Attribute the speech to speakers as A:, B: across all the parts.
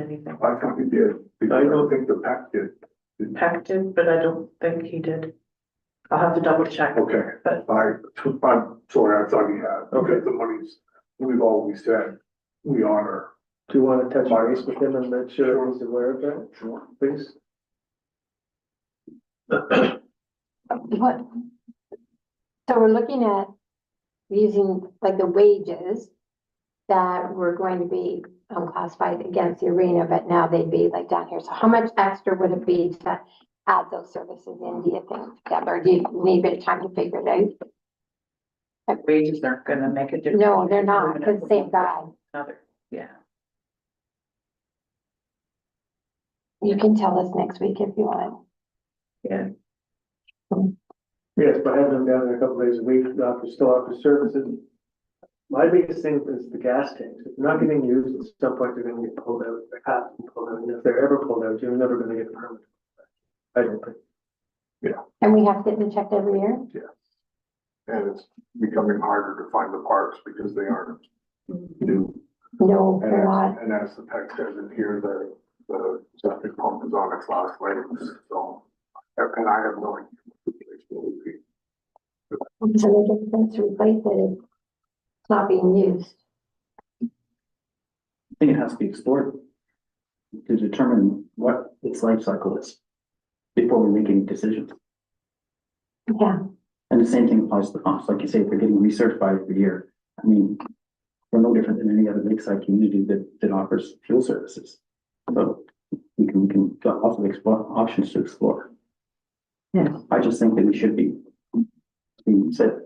A: anything.
B: I think he did, because I don't think the pack did.
A: Pack did, but I don't think he did. I'll have to double check.
B: Okay,
A: But-
B: I, I'm sorry, I thought he had, okay, the money's, we've always said, we honor.
C: Do you want to touch base with him and make sure he's aware of that,
B: Sure.
C: please?
D: What? So we're looking at using like the wages that were going to be um classified against the arena, but now they'd be like down here. So how much extra would it be to add those services in, do you think, Deb, or do you need a bit of time to figure it out?
A: Wages aren't gonna make a difference.
D: No, they're not, because same guy.
A: Another, yeah.
D: You can tell us next week if you want.
C: Yes, but having him down there a couple days a week, after, still after services. My biggest thing is the gas tanks. If they're not getting used, at some point they're gonna get pulled out, they have to be pulled out, and if they're ever pulled out, you're never gonna get a permit. I don't think.
D: And we have to get them checked every year?
B: And it's becoming harder to find the parts because they aren't
D: Mm-hmm.
B: new.
D: No,
B: And
D: they're
B: as,
D: not.
B: and as the tech says in here, the, the septic pump is on its last legs, so, and I have no idea. what the place will be.
D: So they get them to replace it. It's not being used.
E: I think it has to be explored to determine what its life cycle is before we make any decisions.
D: Yeah.
E: And the same thing applies to the pumps. Like you say, if they're getting recertified every year, I mean, we're no different than any other lakeside community that, that offers fuel services. So we can, we can, got lots of explore, options to explore.
A: Yeah.
E: I just think that we should be, we said,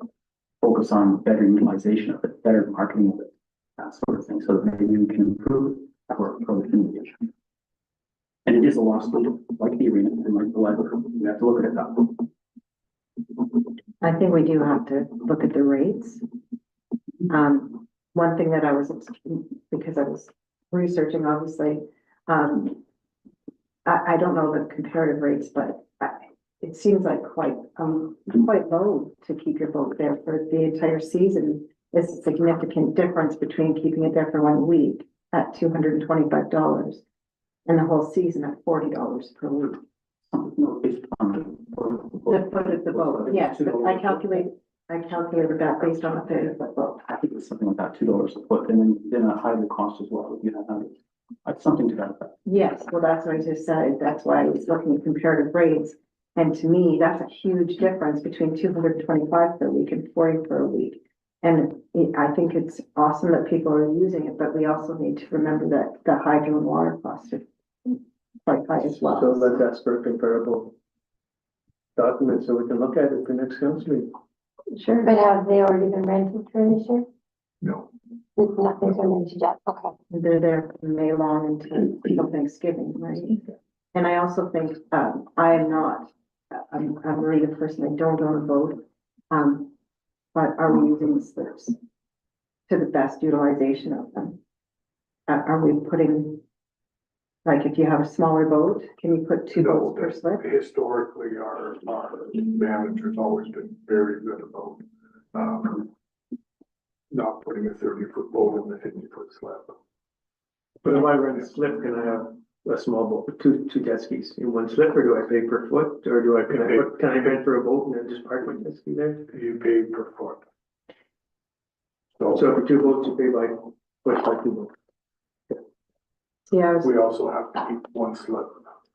E: focus on better utilization of it, better marketing of it, that sort of thing, so that maybe we can improve our productivity. And it is a lost leader, like the arena and like the library. We have to look at it that way.
F: I think we do have to look at the rates. Um, one thing that I was, because I was researching, obviously, um. I, I don't know the comparative rates, but I, it seems like quite, um, quite low to keep your boat there for the entire season. It's a significant difference between keeping it there for one week at two hundred and twenty-five dollars. And the whole season at forty dollars per week.
E: No, it's on the-
F: The foot of the boat, yes, but I calculate, I calculated that based on a third of the boat.
E: I think it's something like that, two dollars a foot, and then, then a higher cost as well, you know, that- like something to that effect.
F: Yes, well, that's what I just said, that's why I was looking at comparative rates. And to me, that's a huge difference between two hundred and twenty-five per week and forty per week. And it- I think it's awesome that people are using it, but we also need to remember that the hydro and water costs are quite high as well.
C: So let's ask for a comparable document so we can look at it for next council meeting.
F: Sure.
D: But have they already been rented for this year?
B: No.
D: Nothing's been rented yet, okay.
F: They're there from May long until till Thanksgiving, right? And I also think, um, I am not, I'm, I'm a marina person, I don't own a boat. Um, but are we using the slips to the best utilization of them? Are, are we putting, like, if you have a smaller boat, can you put two
B: No,
F: boats per slip?
B: Historically, our, our manager's always been very good about, um, not putting a thirty foot boat in the fifty foot slab.
C: But if I rent a slip, can I have a small boat, with two, two jet skis in one slip, or do I pay per foot, or do I, can I, what- can I rent for a boat and then just park my jet ski there?
B: You pay per foot.
C: So
B: So
C: for two boats, you pay by, foot by two boats?
F: Yeah, I was-
B: we also have to keep one slip,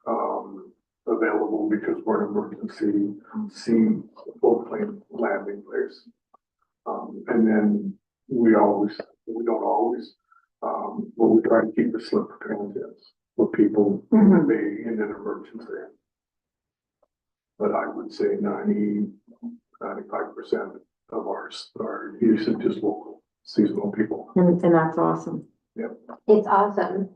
B: um, available because we're an emergency sea floatplane landing place. Um, and then we always, we don't always, um, but we try to keep a slip for transients, for people
F: Mhm.
B: be in an emergency. But I would say 90, 95 percent of ours are usage is local, seasonal people.
F: and, and that's awesome.
D: It's awesome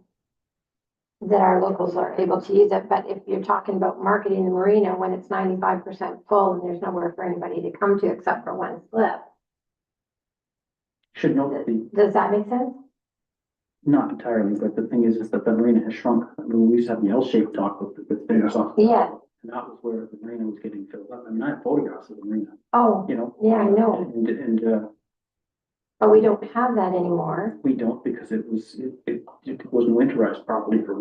D: that our locals are able to use it, but if you're talking about marketing the marina when it's ninety-five percent full and there's nowhere for anybody to come to except for one slip,
E: Should note that the,
D: does that make sense?
E: not entirely, but the thing is, is that the marina has shrunk. I mean, we used to have the L-shaped dock with, with fingers off.
D: Yeah,
E: And that was where the marina was getting filled up. I mean, I have photographs of the marina,
D: oh,
E: you know?
D: yeah, I know,
E: And, and, uh,
D: but we don't have that anymore.
E: we don't because it was, it, it it wasn't winterized properly for